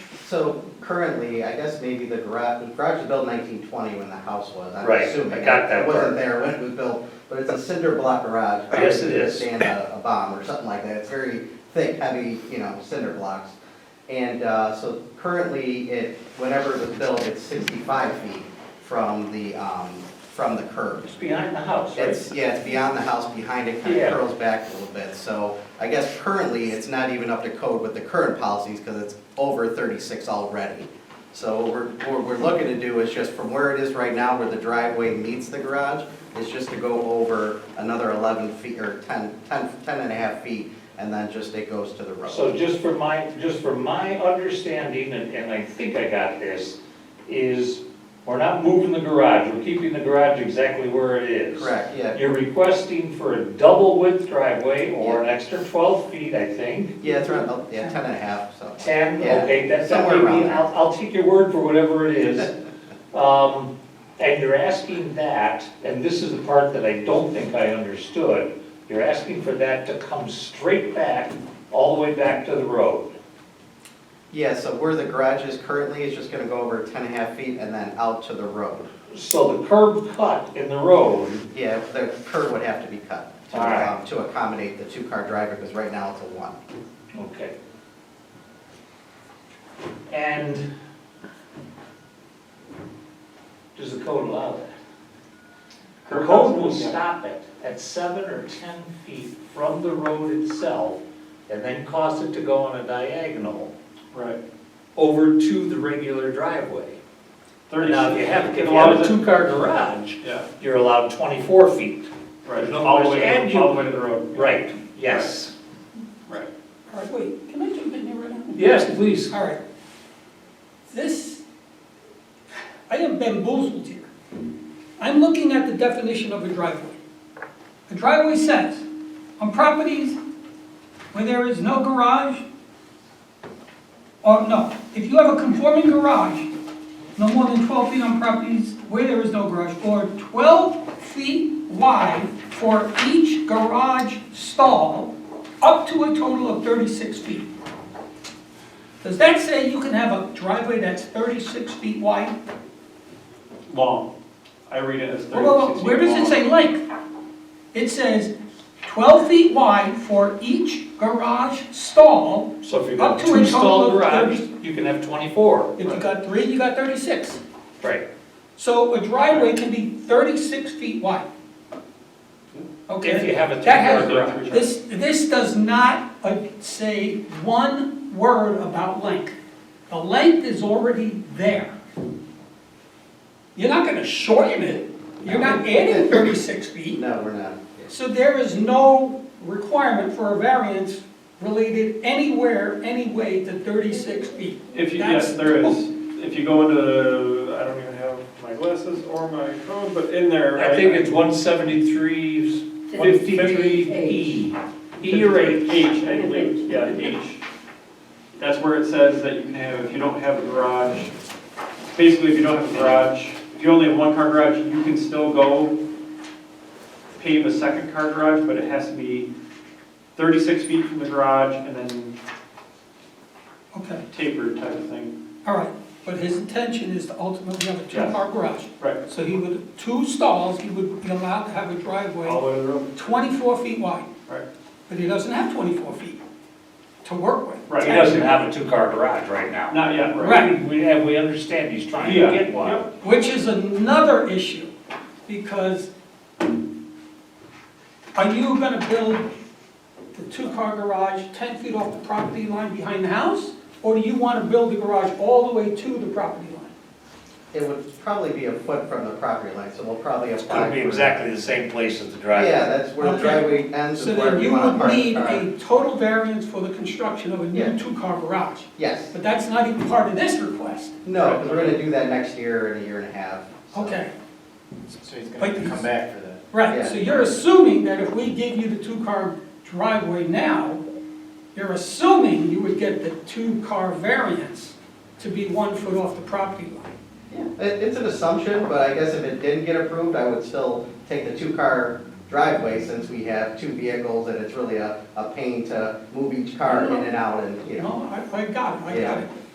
So currently, I guess maybe the garage, the garage was built nineteen twenty when the house was, I'm Right, I assuming. got that It part. wasn't there when it was built, but it's a cinder block garage. I guess it probably to is. Stand a, a bomb or something like that, it's very thick, heavy, you know, cinder blocks. And, uh, so currently, it, whenever it was built, it's sixty-five feet from the, um, from the curb. It's behind the house, right? It's, yeah, it's beyond the house, behind it, kind Yeah. of curls back a little bit, so I guess currently, it's not even up to code with the current policies, because it's over thirty-six already. So what we're, what we're looking to do is just from where it is right now, where the driveway meets the garage, is just to go over another eleven feet, or 10 10 10 and a half feet, and then just it goes to the road. So just for my, just for my understanding, and, and I think I got this, is we're not moving the garage, we're keeping the garage exactly where it is. Correct, yeah. You're requesting for a double width driveway or an extra twelve feet, I think, Yeah, it's around, oh, yeah, ten and a half, so. ten, Yeah, okay, that's, that somewhere may around be, there. I'll, I'll take your word for whatever it is. Um, and you're asking that, and this is the part that I don't think I understood, you're asking for that to come straight back, all the way back to the road. Yeah, so where the garage is currently is just gonna go over ten and a half feet and then out to the road. So the curb cut in the road, Yeah, the curb would have to be cut to, All right. um, to accommodate the two-car driver, because right now it's a one. okay. And does the code allow that? The code will stop it at seven or 10 feet from the road itself and then cause it to go on a diagonal Right. over to the regular driveway. Now, if you have, if you have Allows a it- two-car garage, Yeah, you're allowed 24 feet. right, There's all the way, and to- all the you- way to the road. Right, yes. Right. All right, wait, can I jump in here right now? Yes, please. All right. This, I am bamboozled here. I'm looking at the definition of a driveway. A driveway says, on properties where there is no garage, or no, if you have a conforming garage, no more than 12 feet on properties where there is no garage, or 12 feet wide for each garage stall, up to a total of 36 feet. Does that say you can have a driveway that's 36 feet wide? Long. I read it as Whoa, whoa, thirty-six whoa, feet Where does it long. say length? It says 12 feet wide for each garage stall. So if you've Up got to a total two-stall of garage, you can have 24. If you got three, you got 36. Right. So a driveway can be 36 feet wide. Okay? If you have a That has- two-car garage. This, this does not uh, say one word about length. The length is already there. You're not gonna shorten it, you're not adding thirty-six feet, No, we're not. so there is no requirement for a variance related anywhere, any way to thirty-six feet. If you, That's- yes, there is, if you go into, I don't even have my glasses or my phone, but in there. I think it's 173, 53E, E or H. H, I believe, yeah, H. That's where it says that you can have, if you don't have a garage, basically if you don't have a garage, if you only have one car garage, you can still go pave a second car garage, but it has to be thirty-six feet from the garage and then Okay, tapered type of thing. all right, but his intention is to ultimately have a two-car garage. Right. So he would, two stalls, he would be allowed to have a All driveway the way to the road. twenty-four feet wide. Right. But he doesn't have 24 feet to work with. Right. He doesn't have a two-car garage right now. Not yet, right? Right. We, and we understand he's trying Yeah, to get one. yep. Which is another issue, because are you gonna build the two-car garage 10 feet off the property line behind the house? Or do you wanna build the garage all the way to the property line? It would probably be a foot from the property line, so we'll probably It's apply. gonna be for- exactly the same place as the Yeah, driveway. that's where the Okay. driveway ends So and where then we you want to would park the need car. a total variance for the construction of a Yeah. new two-car garage. Yes, But that's not even part of this request. no, because we're gonna do that next year in a year and a half. so. Okay, So he's But gonna have to he's- come back for that. right, Yeah. so you're assuming that if we give you the two-car driveway now, you're assuming you would get the two-car variance to be one foot off the property line. Yeah, It, it's an assumption, but I guess if it didn't get approved, I would still take the two-car driveway since we have two vehicles and it's really a, a pain to move each car in and out and, you know. No, I, I got it, I Yeah. got it.